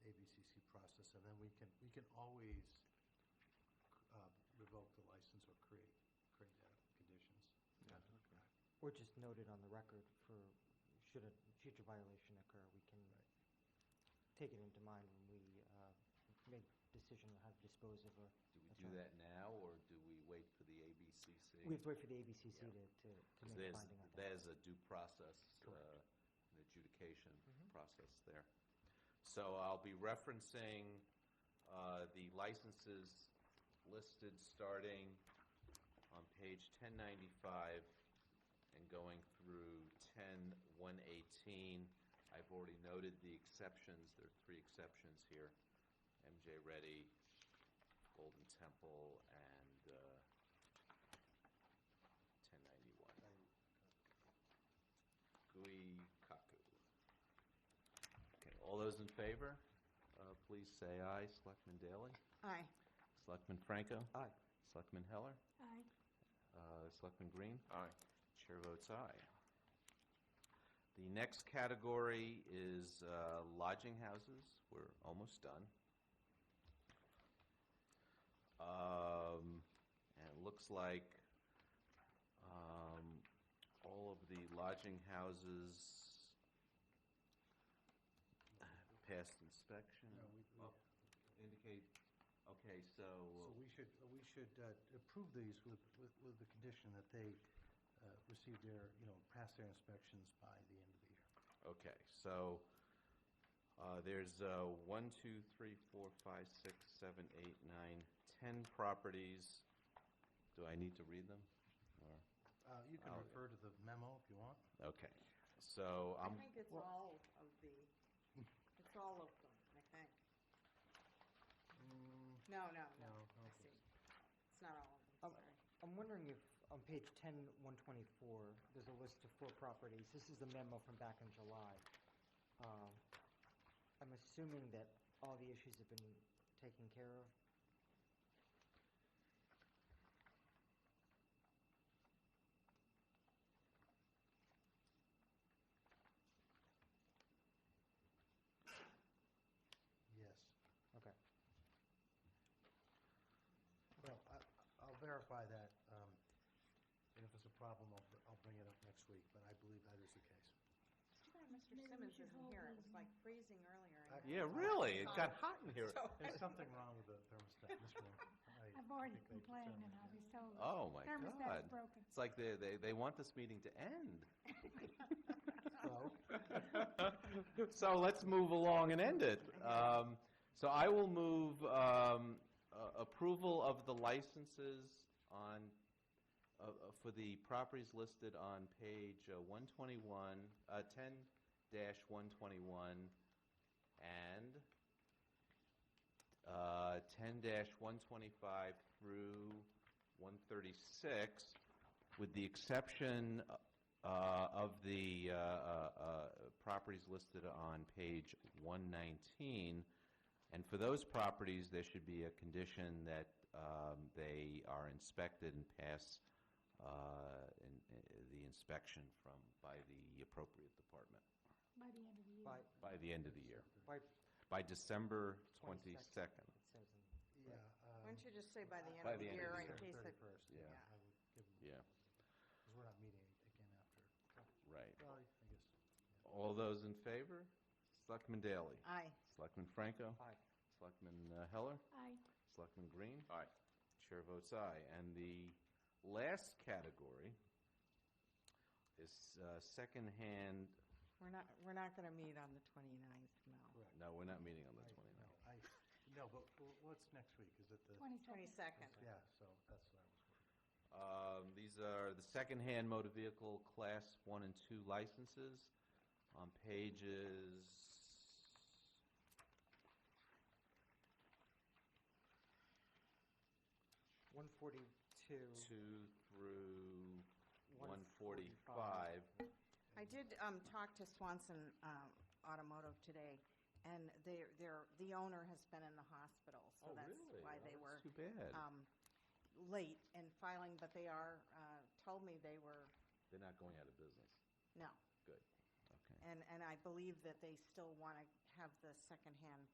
um, uh, Or just noted on the record for, should a future violation occur, we can Right. take it into mind when we uh, make decision on how to dispose of or. Do we That's do right. that now, or do we wait for the ABCC? We have to wait for the ABCC to, to, to Because make a there's, finding on that. there's a due process, uh, Correct. Mm-hmm. an adjudication process there. So I'll be referencing uh, the licenses listed starting on page 1095 and going through 10118. I've already noted the exceptions, there are three exceptions here, MJ Reddy, Golden Temple, and uh, 1091. Gui Kaku. Okay, all those in favor, uh, please say aye. Selectman Daley? Aye. Selectman Franco? Aye. Selectman Heller? Aye. Uh, Selectman Green? Aye. Chair votes aye. The next category is uh, lodging houses. We're almost done. Um, And it looks like um, all of the lodging houses passed inspection. No, we- we- Oh, Indicate, okay, So so, we should, we should uh, approve these with, with, with the condition that they uh, receive their, you know, pass their inspections by the end of the year. okay, so uh, there's uh, one, two, three, four, five, six, seven, eight, nine, ten properties. Do I need to read them? Or, Uh, You can Oh, yeah. refer to the memo if you want. okay, so um, I'm, I think it's all of the, it's all of them, I think. No, no, Mm, no, No, I okay. see. It's not Um, Oh. all of them, sorry. I'm wondering if, on page ten, one twenty-four, there's a list of four properties, this is the memo from back in July. Um, I'm assuming that all the issues have been taken care of, Yes. okay. Well, I, I'll verify that, um, and if it's a problem, I'll, I'll bring it up next week, but I believe that is the case. Too bad Mr. Maybe we Simmons should isn't hold here. It these was like freezing earlier. I- and- yeah, really, it got hot in here. So- There's something wrong with the thermostat, Mr. Mayor. I I've already think they complained and determined. I'll Oh, be told. my Thermostat's God. broken. It's like they, they, they want this meeting to end. So, So let's move along and end it. Um, So I will move um, a- approval of the licenses on, uh, uh, for the properties listed on page uh, 121, uh, 10-121 and uh, 10-125 through 136, with the exception uh, of the uh, uh, uh, properties listed on page 119. And for those properties, there should be a condition that um, they are inspected and pass uh, in- in- the inspection from, by the appropriate department, By the end of the year. By, by the end of the year, by by December 22nd, 22nd. It says yeah. in. um. Why don't you just say by the end By of the the end of year the in case it, Thirty-first, yeah. yeah. I would give them, Yeah, because we're not meeting again after, right. well, I guess. All those in favor? Selectman Daley? aye. Selectman Franco? Aye. Selectman uh, Heller? Aye. Selectman Green? Aye. Chair votes aye. And the last category is uh, secondhand, We're not, we're not gonna meet on the twenty-ninth, no. Correct. no, we're not meeting on the I- 29th. no, I, no, but w- what's next week? Is it the? Twenty-second. Twenty-second. Yeah, so that's what I was worried. Um, These are the secondhand motor vehicle Class 1 and 2 licenses on pages, One forty-two. 2 through 145. 145. I did um, talk to Swanson um, Automotive today, and they, they're, the owner has been in the hospital, so Oh, that's really? why Oh, they that's were Too bad. um, late in filing, but they are, uh, told me they were, They're not going out of business. no. Good. Okay. And, and I believe that they still want to have the secondhand